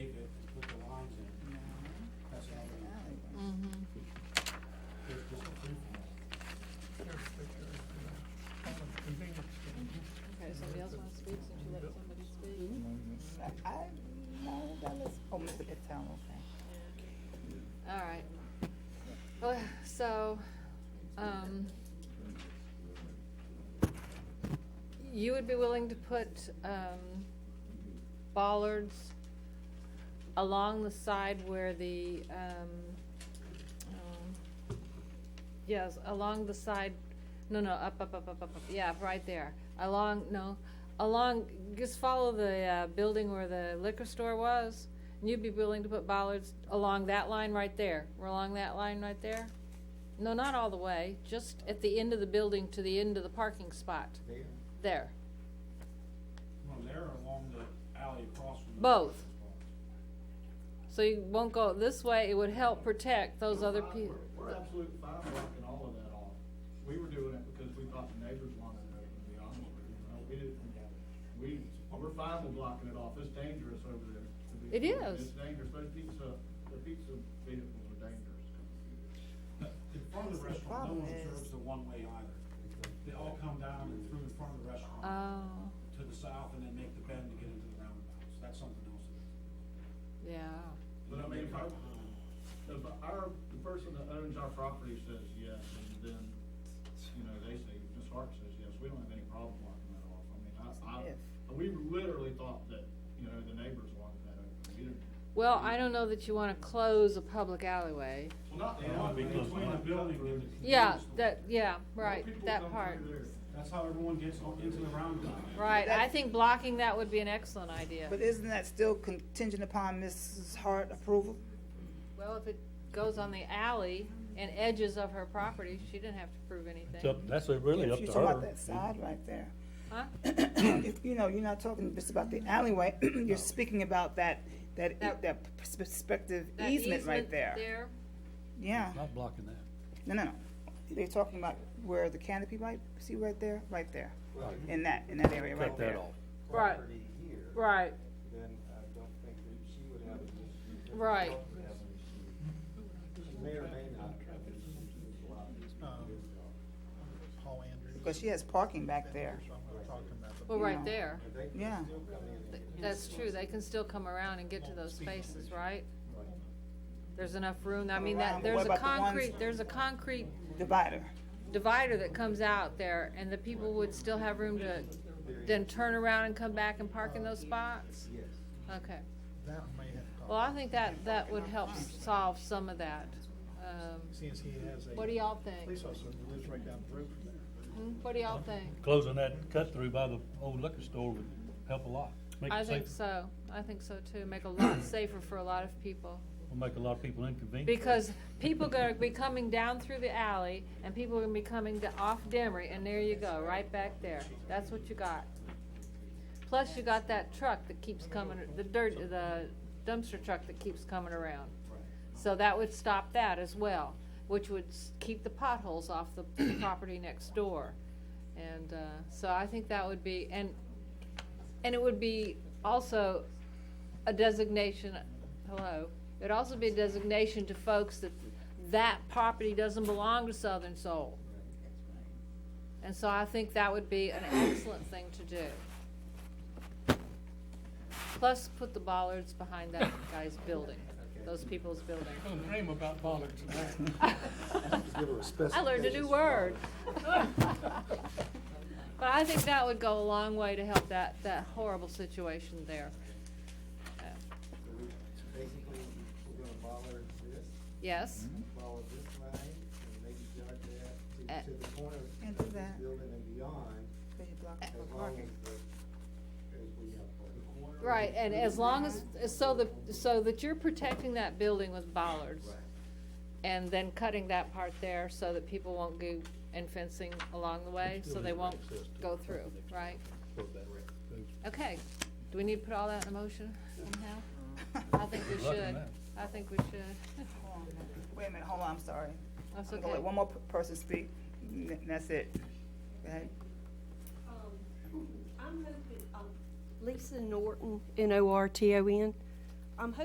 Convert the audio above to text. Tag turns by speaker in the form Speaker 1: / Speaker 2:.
Speaker 1: Mm-hmm.
Speaker 2: homes, but it's all okay.
Speaker 1: All right. Well, so, um, you would be willing to put, um, bollards along the side where the, um, um, yes, along the side, no, no, up, up, up, up, up, up, yeah, right there. Along, no, along, just follow the, uh, building where the liquor store was, and you'd be willing to put bollards along that line right there. We're along that line right there? No, not all the way, just at the end of the building to the end of the parking spot,
Speaker 3: There.
Speaker 1: there.
Speaker 4: Well, there along the alley across from the.
Speaker 1: Both. So you won't go this way, it would help protect those other people.
Speaker 3: We're we're absolutely fine blocking all of that off. We were doing it because we thought the neighbors wanted it, to be honest with you, you know, we didn't, we, we're fine with blocking it off, it's dangerous over there. to be-
Speaker 1: It is.
Speaker 3: It's dangerous, those pizza, the pizza vehicles are dangerous.
Speaker 4: In front of the restaurant, no one observes the one-way either. They all come down and through in front of the restaurant
Speaker 1: Oh,
Speaker 4: to the south and then make the bend to get into the roundabout. So that's something else.
Speaker 1: yeah.
Speaker 3: But I mean, if our, if our, the person that owns our property says yes, and then, you know, they say, Ms. Hart says yes, we don't have any problem blocking that off. I mean, I, I, we literally thought that, you know, the neighbors wanted that open, we didn't.
Speaker 1: Well, I don't know that you wanna close a public alleyway.
Speaker 3: Well, not the
Speaker 4: They want to
Speaker 3: alley,
Speaker 4: be
Speaker 3: but
Speaker 4: between the building and the. convenience
Speaker 1: Yeah,
Speaker 4: store.
Speaker 1: that, yeah,
Speaker 3: Well,
Speaker 1: right,
Speaker 3: people come
Speaker 1: that
Speaker 3: through
Speaker 1: part.
Speaker 3: there.
Speaker 4: That's how everyone gets on- into the roundabout.
Speaker 1: Right, I
Speaker 2: That's-
Speaker 1: think blocking that would be an excellent idea.
Speaker 2: But isn't that still contingent upon Mrs. Hart approval?
Speaker 1: Well, if it goes on the alley and edges of her property, she didn't have to prove
Speaker 5: It's up-
Speaker 1: anything.
Speaker 5: That's really
Speaker 2: Yeah,
Speaker 5: up
Speaker 2: If
Speaker 5: to
Speaker 2: you're talking about
Speaker 5: her.
Speaker 2: that side right there.
Speaker 1: Huh?
Speaker 2: If, you know, you're not talking just about the alleyway, you're speaking about that, that,
Speaker 1: That-
Speaker 2: that perspective
Speaker 1: That
Speaker 2: easement right there.
Speaker 1: There,
Speaker 2: Yeah,
Speaker 5: Not blocking that.
Speaker 2: no, no, no. They're talking about where the canopy right, see right there, right there, in that, in that area right
Speaker 5: Cut
Speaker 2: there.
Speaker 5: that off.
Speaker 1: Right.
Speaker 6: Property here,
Speaker 1: right,
Speaker 6: then I don't think that she would have an issue.
Speaker 1: Right.
Speaker 6: Would have an issue. She may or may not have an issue.
Speaker 7: Paul Andrews.
Speaker 2: Because she has parking back there.
Speaker 7: So I'm not talking about the
Speaker 1: well,
Speaker 2: Yeah.
Speaker 1: right there.
Speaker 6: But they could
Speaker 2: Yeah.
Speaker 6: still come in and-
Speaker 1: That's true, they can still come around and get to those spaces, right? There's enough room, I mean,
Speaker 2: Around,
Speaker 1: that,
Speaker 2: but what
Speaker 1: there's a
Speaker 2: about the ones-
Speaker 1: concrete, there's a concrete
Speaker 2: Divider.
Speaker 1: divider that comes out there, and the people would still have room to then turn around and come back and park in those spots?
Speaker 6: Yes.
Speaker 1: Okay,
Speaker 7: That may have.
Speaker 1: well, I think that, that would help solve some of that. Um,
Speaker 7: Since he has a.
Speaker 1: What do y'all think?
Speaker 6: Oh,
Speaker 7: Police officer who lives right down the road from there.
Speaker 1: Hmm? What do y'all think?
Speaker 5: Closing that cut through by the old liquor store would help a lot. Make
Speaker 1: I
Speaker 5: it
Speaker 1: think
Speaker 5: safer.
Speaker 1: so, I think so too, make a lot safer for a lot of people.
Speaker 5: Will make a lot of people inconvenient.
Speaker 1: Because people gonna be coming down through the alley, and people are gonna be coming to, off Demery, and there you go, right back there, that's what you got. Plus you got that truck that keeps coming, the dirt, the dumpster truck that keeps coming around. So that would stop that as well, which would s- keep the potholes off the property next door. And, uh, so I think that would be, and, and it would be also a designation, hello, it'd also be a designation to folks that that property doesn't belong to Southern Soul. And so I think that would be an excellent thing to do. Plus, put the bollards behind that guy's building, those people's building.
Speaker 5: Dream about bollards.
Speaker 1: I learned a new word. But I think that would go a long way to help that, that horrible situation there. Uh,
Speaker 6: So we, basically, we're gonna bother this,
Speaker 1: Yes?
Speaker 6: follow this line, and maybe jog
Speaker 1: Uh,
Speaker 6: that to, to the corner
Speaker 2: And do
Speaker 6: of this
Speaker 2: that.
Speaker 6: building and beyond, as long as the, as we have. parking.
Speaker 1: Right, and as long as, so the, so that you're protecting that building with bollards. And then cutting that part there so that people won't go and fencing along the way, so they won't go through, right? Okay, do we need to put all that in a motion somehow? I think we
Speaker 5: Good luck on
Speaker 1: should,
Speaker 5: that.
Speaker 1: I think we should.
Speaker 2: Wait a minute, hold on, I'm sorry.
Speaker 1: That's
Speaker 2: I'm gonna let
Speaker 1: okay.
Speaker 2: One more p- person speak, and that's it. Go ahead.
Speaker 8: Um, I'm hoping, um, Lisa Norton, N-O-R-T-O-N.